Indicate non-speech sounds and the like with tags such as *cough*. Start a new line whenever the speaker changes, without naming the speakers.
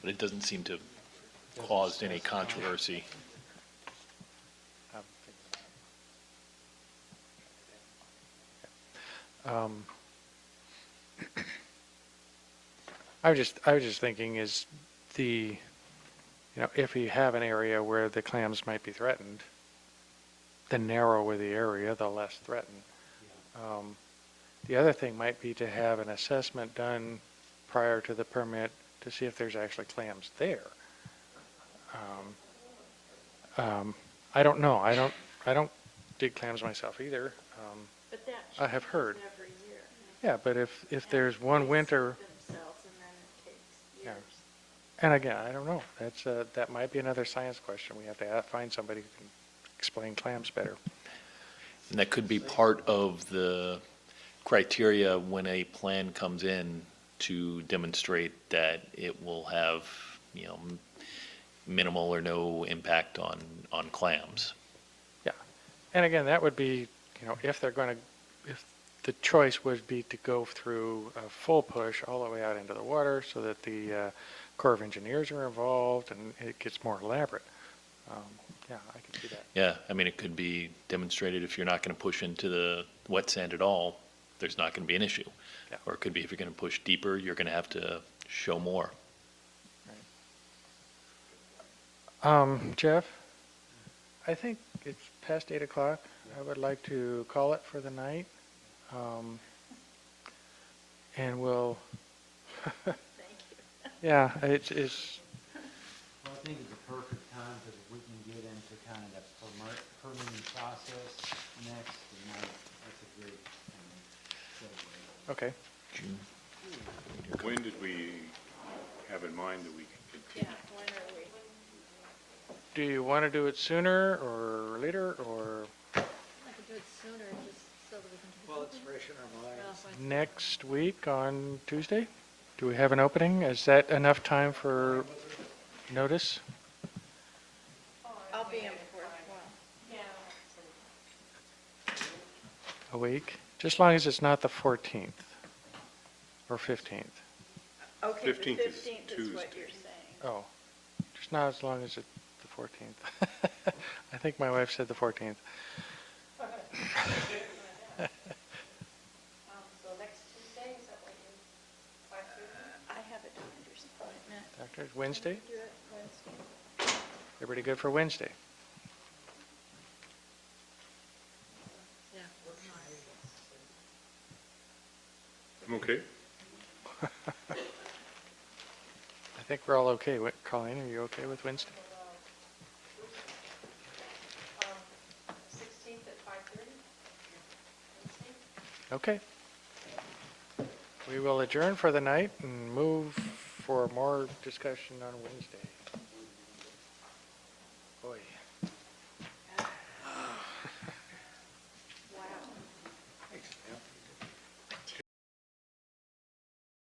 but it doesn't seem to have caused any controversy.
Um, I was just, I was just thinking is the, you know, if you have an area where the clams might be threatened, the narrower the area, the less threatened. Um, The other thing might be to have an assessment done prior to the permit to see if there's actually clams there. Um, um, I don't know. I don't, I don't dig clams myself either. Um,
But that
I have heard.
changes every year.
Yeah, but if, if
And
there's one
they
winter,
suit Themselves and then it takes
Yeah.
years.
and again, I don't know, that's, uh, that might be another science question. We have to a- find somebody who can explain clams better.
And that could be part of the criteria when a plan comes in to demonstrate that it will have, you know, m- minimal or no impact on, on clams.
Yeah. And again, that would be, you know, if they're going to, if the choice would be to go through a full push all the way out into the water so that the uh, Corps of Engineers are involved and it gets more elaborate. Um, Yeah, I could see that.
Yeah, I mean, it could be demonstrated if you're not going to push into the wet sand at all, there's not going to be an issue.
Yeah.
Or it could be if you're going to push deeper, you're going to have to show more.
Um, Jeff, I think it's past eight o'clock. I would like to call it for the night. Um, and we'll,
Thank you.
yeah, it's, it's,
Well, I think it's a perfect time because we can get into kind of the permit- permitting process next, and that- that's a great um, segue.
okay.
June.
When did we have in mind that we could
Yeah,
continue?
when are we?
Do you want to do it sooner or later or
I could do it sooner, just so that we can. do
Well, it's
something.
fresh in our minds.
Ralph, I-
next week on Tuesday? Do we have an opening? Is that enough time for notice?
I'll be in for one.
A week? Just as long as it's not the fourteenth or fifteenth.
Okay, the
15th is
fifteenth is what you're saying.
Oh, just not as long as it's the 14th. *laughs* I think my wife said the 14th.
I have a doctor's appointment.
Doctor's Wednesday?
Do it Wednesday.
Everybody good for Wednesday?
Yeah.
I'm okay.
I think we're all okay. Wi- Colleen, are you okay with Wednesday?
um, Sixteenth at five thirty?
Okay. We will adjourn for the night and move for more discussion on Wednesday.